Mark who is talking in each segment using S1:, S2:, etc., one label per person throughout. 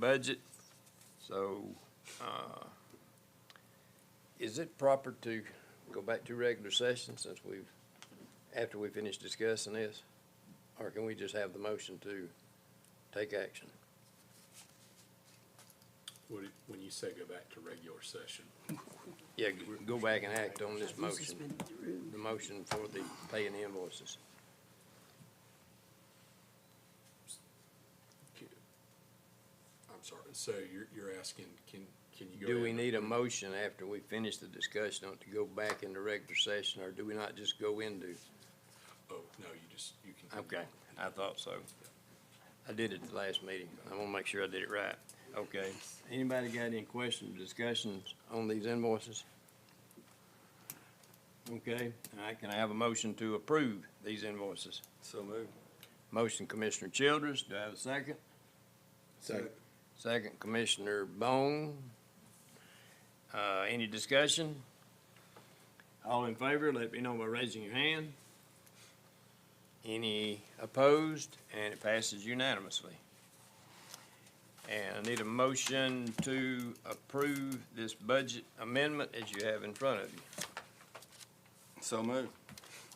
S1: budget, so, uh, is it proper to go back to regular session since we've, after we finish discussing this? Or can we just have the motion to take action?
S2: What, do- when you say go back to regular session,
S1: Yeah, g- go back and act on this
S3: This has
S1: motion,
S3: been through.
S1: the motion for the paying invoices.
S2: can- I'm sorry, so you're, you're asking, can, can you go?
S1: Do
S2: ahead
S1: we
S2: and-
S1: need a motion after we finish the discussion to go back into regular session, or do we not just go into?
S2: Oh, no, you just, you can.
S1: Okay, I thought so. I did it the last meeting. I want to make sure I did it right. Okay. Anybody got any questions, discussions on these invoices? Okay, all right, can I have a motion to approve these invoices?
S2: So move.
S1: Motion Commissioner Childress, do I have a second?
S2: Second.
S1: Second Commissioner Bone. Uh, any discussion? All in favor, let me know by raising your hand. Any opposed? And it passes unanimously. And I need a motion to approve this budget amendment as you have in front of you.
S2: So move.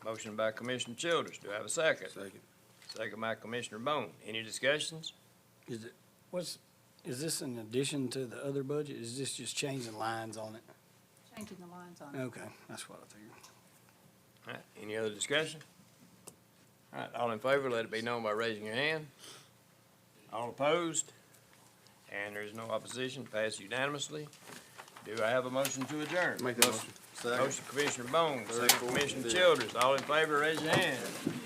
S1: Motion by Commissioner Childers. Do I have a second? Second. Second by Commissioner Bone. Any discussions?
S4: Is it, what's, is this in addition to the other budget? Is this just changing lines on it?
S3: Changing the lines on it.
S4: Okay, that's what I figured.
S1: All right, any other discussion? All right, all in favor, let it be known by raising your hand. All opposed? And there's no opposition, passed unanimously. Do I have a motion to adjourn?
S5: Make a motion.
S1: Motion Commissioner Bone, second Commissioner Childers, all in favor, raise your hand.